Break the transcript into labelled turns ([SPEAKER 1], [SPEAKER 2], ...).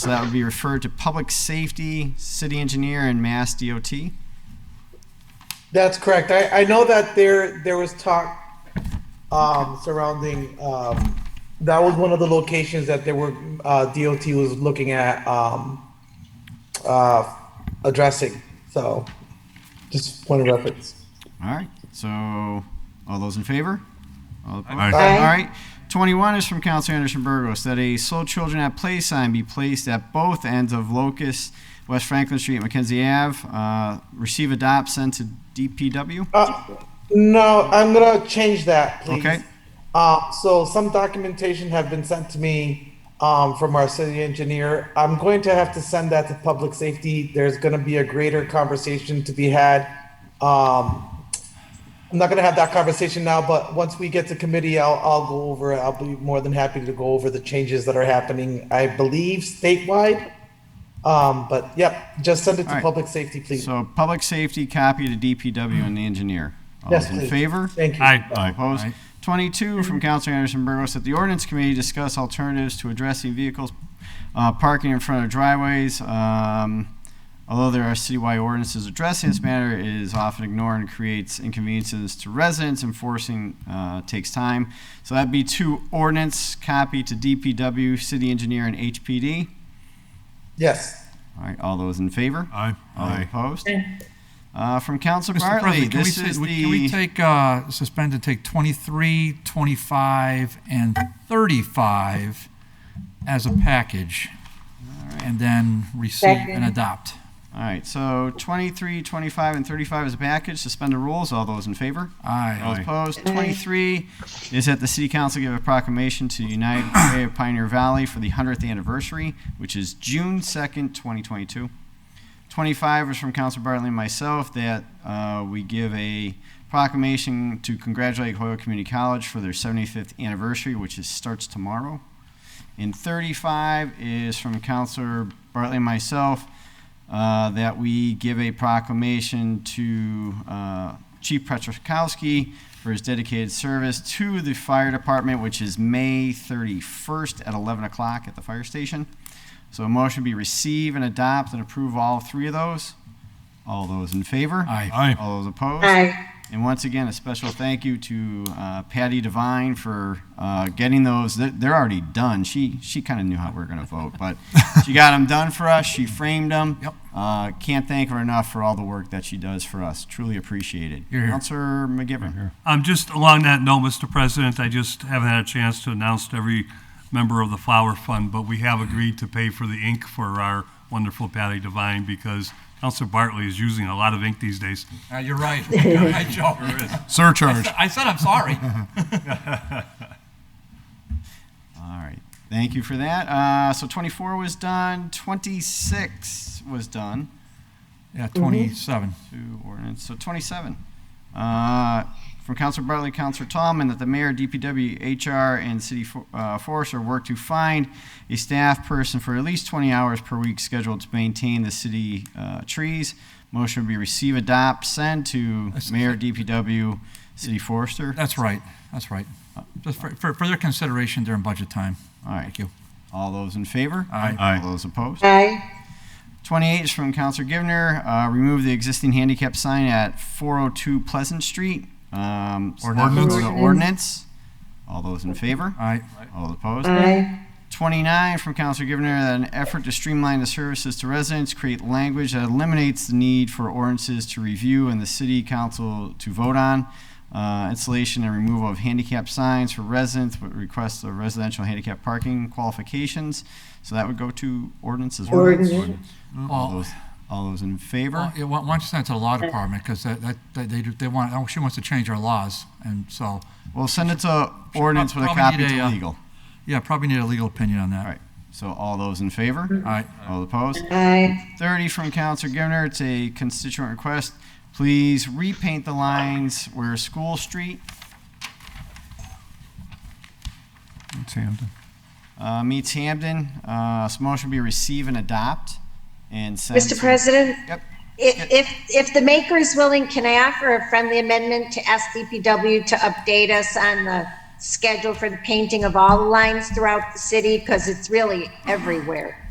[SPEAKER 1] So that would be referred to Public Safety, City Engineer, and Mass DOT.
[SPEAKER 2] That's correct. I, I know that there, there was talk, um, surrounding, um, that was one of the locations that there were, uh, DOT was looking at, um, uh, addressing, so, just point of reference.
[SPEAKER 1] All right, so, all those in favor? All opposed?
[SPEAKER 3] Aye.
[SPEAKER 4] Aye.
[SPEAKER 1] All right, 21 is from Council Anderson Burgos, that a slow children at play sign be placed at both ends of Locust, West Franklin Street, Mackenzie Ave. Uh, Receive, adopt, send to DPW.
[SPEAKER 2] Uh, no, I'm gonna change that, please.
[SPEAKER 1] Okay.
[SPEAKER 2] Uh, so some documentation have been sent to me, um, from our city engineer. I'm going to have to send that to public safety. There's gonna be a greater conversation to be had. Um, I'm not gonna have that conversation now, but once we get to committee, I'll, I'll go over, it. I'll be more than happy to go over the changes that are happening, I believe statewide. Um, but yep, just send it
[SPEAKER 1] All
[SPEAKER 2] to
[SPEAKER 1] right.
[SPEAKER 2] public safety, please.
[SPEAKER 1] So Public Safety, copy to DPW and the engineer. All
[SPEAKER 2] Yes,
[SPEAKER 1] those in
[SPEAKER 2] please.
[SPEAKER 1] favor?
[SPEAKER 2] Thank you.
[SPEAKER 3] Aye.
[SPEAKER 1] All Opposed? 22 from Counselor Anderson Burgos, that the ordinance committee discuss alternatives to addressing vehicles uh, parking in front of driveways. Um, Although there are citywide ordinances addressing this matter, it is often ignored and creates inconveniences to residents. Enforcing uh, takes time. So that'd be two ordinance, copy to DPW, city engineer, and HPD.
[SPEAKER 2] Yes.
[SPEAKER 1] All right, all those in favor?
[SPEAKER 3] Aye.
[SPEAKER 1] All opposed? Uh, From Counselor
[SPEAKER 5] Mr.
[SPEAKER 1] Bartley,
[SPEAKER 5] President, can we,
[SPEAKER 1] this
[SPEAKER 5] say-
[SPEAKER 1] is
[SPEAKER 5] we- can we
[SPEAKER 1] the,
[SPEAKER 5] take, uh, suspend to take 23, 25, and 35 as a package? And then receive
[SPEAKER 4] Second.
[SPEAKER 5] and adopt.
[SPEAKER 1] all right, so 23, 25, and 35 is a package. Suspend the rules. All those in favor? All
[SPEAKER 5] Aye.
[SPEAKER 1] opposed? 23 is that the city council give a proclamation to unite Way of Pioneer Valley for the 100th anniversary, which is June 2nd, 2022. 25 is from Council Bartley and myself that uh, we give a proclamation to congratulate Hoyle Community College for their 75th anniversary, which is, starts tomorrow. And 35 is from Councilor Bartley and myself uh, that we give a proclamation to uh, Chief Petrikowski for his dedicated service to the fire department, which is May 31st at 11 o'clock at the fire station. So a motion be receive and adopt and approve all three of those. All those in favor?
[SPEAKER 5] Aye.
[SPEAKER 3] Aye.
[SPEAKER 1] All those opposed?
[SPEAKER 4] Aye.
[SPEAKER 1] And once again, a special thank you to uh, Patty Devine for uh, getting those. They're, they're already done. She she kind of knew how we were going to vote, but she got them done for us. She framed them.
[SPEAKER 5] Yep.
[SPEAKER 1] Uh, can't thank her enough for all the work that she does for us. Truly appreciated.
[SPEAKER 5] You're here.
[SPEAKER 1] Councilor McGivern.
[SPEAKER 6] Um, just along that note, Mr. President, I just haven't had a chance to announce to every member of the Flower Fund, but we have agreed to pay for the ink for our wonderful Patty Devine because Counselor Bartley is using a lot of ink these days.
[SPEAKER 5] Uh, You're right. You're right, Joe.
[SPEAKER 3] Surcharge.
[SPEAKER 5] I said I'm sorry.
[SPEAKER 1] All right. Thank you for that. Uh, so 24 was done. 26 was done.
[SPEAKER 5] Yeah, 27.
[SPEAKER 1] Two ordinance, so 27. Uh, From Counselor Bartley, Counselor Tomlin, that the mayor, DPW, HR, and city fo- uh, forester work to find a staff person for at least 20 hours per week scheduled to maintain the city uh, trees. Motion would be receive, adopt, send to
[SPEAKER 5] That's-
[SPEAKER 1] mayor, DPW, city forester.
[SPEAKER 5] That's right. That's right. Just for, for for their consideration during budget time.
[SPEAKER 1] All right.
[SPEAKER 5] Thank you.
[SPEAKER 1] All those in favor?
[SPEAKER 5] Aye.
[SPEAKER 3] Aye.
[SPEAKER 1] All those opposed?
[SPEAKER 4] Aye.
[SPEAKER 1] 28 is from Counselor Givner, uh, remove the existing handicap sign at 402 Pleasant Street. Um, so that would go to
[SPEAKER 4] Ordinance.
[SPEAKER 1] Ordinance. All those in favor?
[SPEAKER 5] Aye.
[SPEAKER 1] All opposed?
[SPEAKER 4] Aye.
[SPEAKER 1] 29 from Counselor Givner, that an effort to streamline the services to residents, create language that eliminates the need for ordinances to review and the city council to vote on. Uh, installation and removal of handicap signs for residents, but request of residential handicap parking qualifications. So that would go to ordinance as well.
[SPEAKER 4] Ordinance.
[SPEAKER 1] All
[SPEAKER 5] Well,
[SPEAKER 1] those, all those in favor?
[SPEAKER 5] Well, yeah, why why don't you send it to the law department, because that, that, that they, do- they want, oh, she wants to change our laws, and so,
[SPEAKER 1] Well, send it to ordinance with a
[SPEAKER 5] Probably
[SPEAKER 1] copy
[SPEAKER 5] need a,
[SPEAKER 1] to
[SPEAKER 5] uh,
[SPEAKER 1] legal.
[SPEAKER 5] yeah, probably need a legal opinion on that.
[SPEAKER 1] All right. So all those in favor?
[SPEAKER 5] All right,
[SPEAKER 1] All opposed?
[SPEAKER 4] Aye.
[SPEAKER 1] 30 from Counselor Givner, it's a constituent request. Please repaint the lines where School Street uh, meets Hamden. Uh, So motion be receive and adopt and send.
[SPEAKER 4] Mr. President?
[SPEAKER 1] Yep.
[SPEAKER 4] If, if, if the maker is willing, can I offer a friendly amendment to ask DPW to update us on the schedule for the painting of all the lines throughout the city? Because it's really everywhere.